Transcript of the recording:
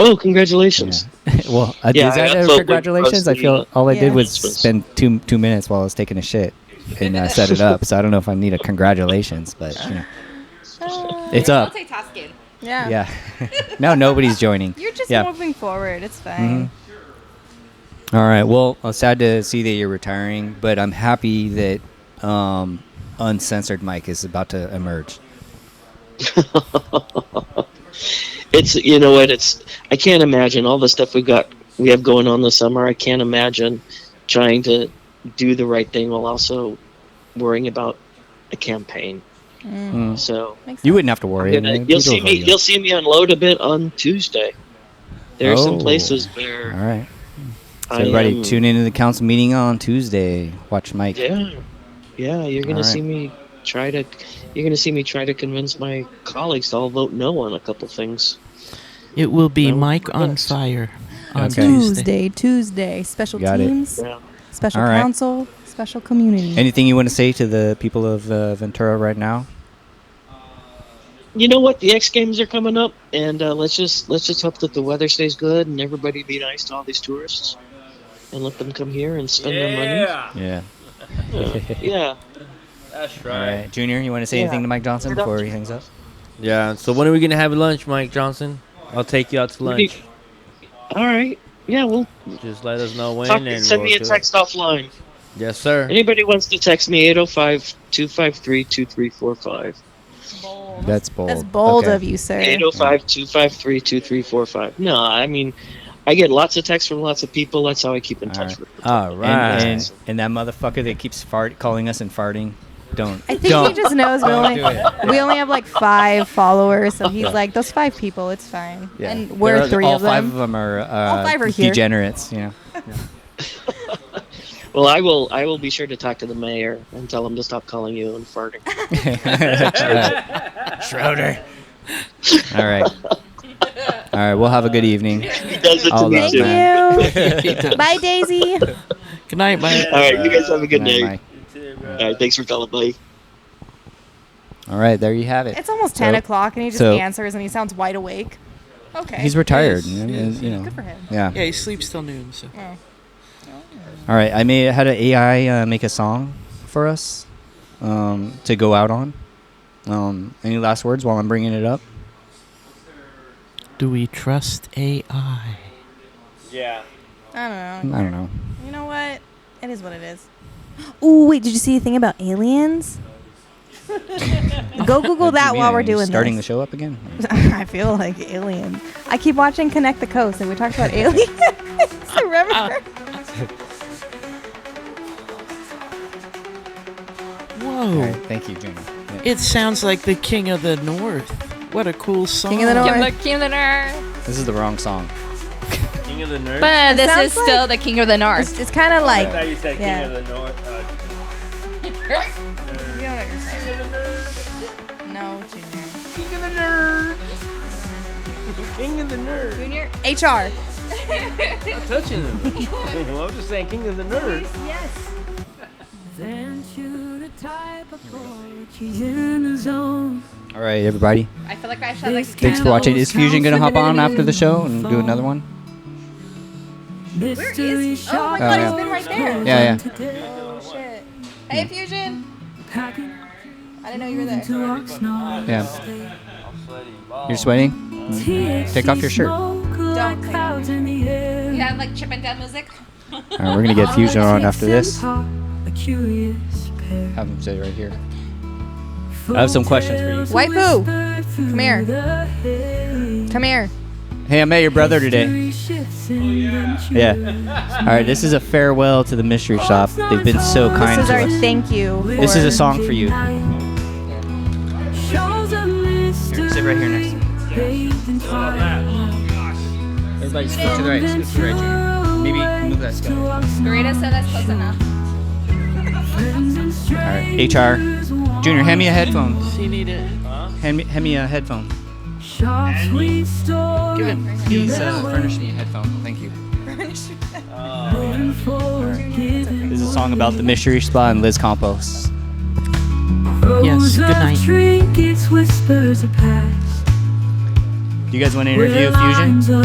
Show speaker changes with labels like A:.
A: Oh, congratulations!
B: well, uh,
A: Yeah,
B: is
A: I
B: that a
A: uploaded
B: congratulations? I
A: mostly
B: feel all I did was
A: announcements.
B: spend two two minutes while I was taking a shit and uh, set it up. So I don't know if I need a congratulations, but you know, it's up.
C: Multitasking.
D: Uh, Yeah.
B: Yeah. now nobody's joining.
D: You're just
B: yeah. Mm-hmm.
D: moving forward. It's fine.
B: All right. Well, I'm sad to see that you're retiring, but I'm happy that um, uncensored Mike is about to emerge.
A: It's you know what? It's I can't imagine all the stuff we got we have going on this summer. I can't imagine trying to do the right thing while also worrying about a campaign.
B: Mm.
A: So
D: Makes
B: You
D: sense.
B: wouldn't have to worry.
A: And, uh,
B: It'll
A: you'll see
B: go
A: me.
B: you.
A: You'll see me unload a bit on Tuesday. There are some
B: Oh.
A: places
B: All
A: where
B: right. So
A: I
B: everybody,
A: am-
B: tune into the council meeting on Tuesday. Watch Mike.
A: Yeah, yeah. You're gonna
B: All right.
A: see me try to. You're gonna see me try to convince my colleagues to all vote no on a couple things.
E: It will be
A: No.
E: Mike on fire on
B: Okay.
D: Tuesday,
E: Tuesday.
D: Tuesday, special
B: Got it.
D: teams,
A: Yeah.
D: special
B: All right.
D: council, special community.
B: Anything you want to say to the people of uh, Ventura right now?
A: You know what? The X Games are coming up, and uh, let's just let's just hope that the weather stays good and everybody be nice to all these tourists, and let them come here and spend their
F: Yeah,
B: Yeah.
A: money. Yeah.
F: that's
B: All
F: right.
B: right. Junior, you want to say
A: Yeah.
B: anything to Mike Johnson
A: Get up.
B: before he hangs up?
F: Yeah. So when are we gonna have lunch, Mike Johnson? I'll take you out to
A: What do you-
F: lunch.
A: All right. Yeah. Well,
F: Just let us know when,
A: talk,
F: and
A: send
F: we'll
A: me a
F: do it.
A: text offline.
F: Yes, sir.
A: Anybody wants to text me 805 253 2345.
B: That's bold.
D: That's bold
B: Oh, Okay.
D: of you, sir.
A: 805 253 2345. No, I mean, I get lots of texts from lots of people. That's how I keep in
B: All
A: touch
B: right.
A: with them.
B: All right. And,
A: Yes.
B: and that motherfucker that keeps fart calling us and farting. Don't.
D: I think
B: don't.
D: he just knows we
B: Don't
D: only,
B: do it.
D: we only have like five followers, so he's like, those five people, it's fine.
B: Yeah.
D: And
B: There
D: we're
B: are-
D: three
B: all
D: of them.
B: five of them are, uh,
D: five are here.
B: degenerates. You know.
A: Well, I will I will be sure to talk to the mayor and tell him to stop calling you and farting.
B: Schroeder. All right. All right. We'll have a good evening.
A: He does it to
B: All
A: me,
B: love,
D: Thank
A: too.
B: man.
D: you. Bye, Daisy.
E: Good night, Mike.
A: All right. You guys have a good
B: night,
A: day.
B: Mike.
A: All right. Thanks for calling, buddy.
B: All right. There you have it.
D: It's almost 10
B: So-
D: o'clock, and he just
B: so-
D: answers, and he sounds wide awake. Okay.
B: He's retired.
E: Yes,
B: you know,
E: yes.
B: you know.
D: Good for him. Mm.
B: Yeah.
E: Yeah, he sleeps till noon. So.
B: All right. I made had an AI uh, make a song for us um, to go out on. Um, any last words while I'm bringing it up?
E: Do we trust AI?
F: Yeah.
D: I
B: I
D: don't know.
B: don't know.
D: You know what? It is what it is. Ooh, wait, did you see the thing about aliens? Go Google that
B: You
D: while
B: mean
D: we're doing
B: starting
D: this.
B: the show up again.
D: I feel like aliens. I keep watching Connect the Coast, and we talked about aliens. Remember?
B: All
E: Whoa.
B: right. Thank you, Junior. Yeah.
E: It sounds like the King of the North. What a cool song.
D: King of the North.
C: Give the King of the North.
B: This is the wrong song.
F: King of the North.
C: But this
D: sounds
C: is still the King of the North.
D: It's, it's kind of like
F: you said
D: King Yeah. of
F: the uh, North.
D: no junior.
F: King of the Nerds. King of the Nerds.
C: Junior.
D: HR.
F: Not touching them. well, I'm just saying, King of the Nerds.
B: All right, everybody.
C: I feel like I should like
B: Thanks for watching. Is Fusion gonna hop on after the show and do another one?
C: Where is? Oh
B: God,
C: my god,
B: it's
C: it's
B: been
C: been right there.
B: Yeah, yeah.
D: Oh,
C: Hey, Fusion. I didn't know you were there.
B: Yeah. You're sweating? Take off your shirt. All
C: Don't take it. You have like Chip and Dale music.
B: right, we're gonna get Fusion on after this. Have him sit right here. I have some questions for
D: White poo. Come here. Come here.
B: you. Hey, I met your brother today. Yeah. All right, this is a farewell to the mystery shop. They've been so kind
D: This is
B: to
D: our
B: us.
D: thank you.
B: This is
D: for-
B: a song for you. Here, sit right here next to me. Everybody, scoot to the right. Scoot to the right, Junior. Maybe move that scout.
C: Marita said that's close enough.
B: All right, HR. Junior, hand me a headphone.
E: Does he need it?
B: Hand me, hand me a headphone.
E: Give it.
B: Please uh, furnish me a headphone. Thank you. This is a song about the mystery spa and Liz Campos.
E: Yes, good night.
G: Trinkets whispers a past.
B: Do you guys want to interview Fusion?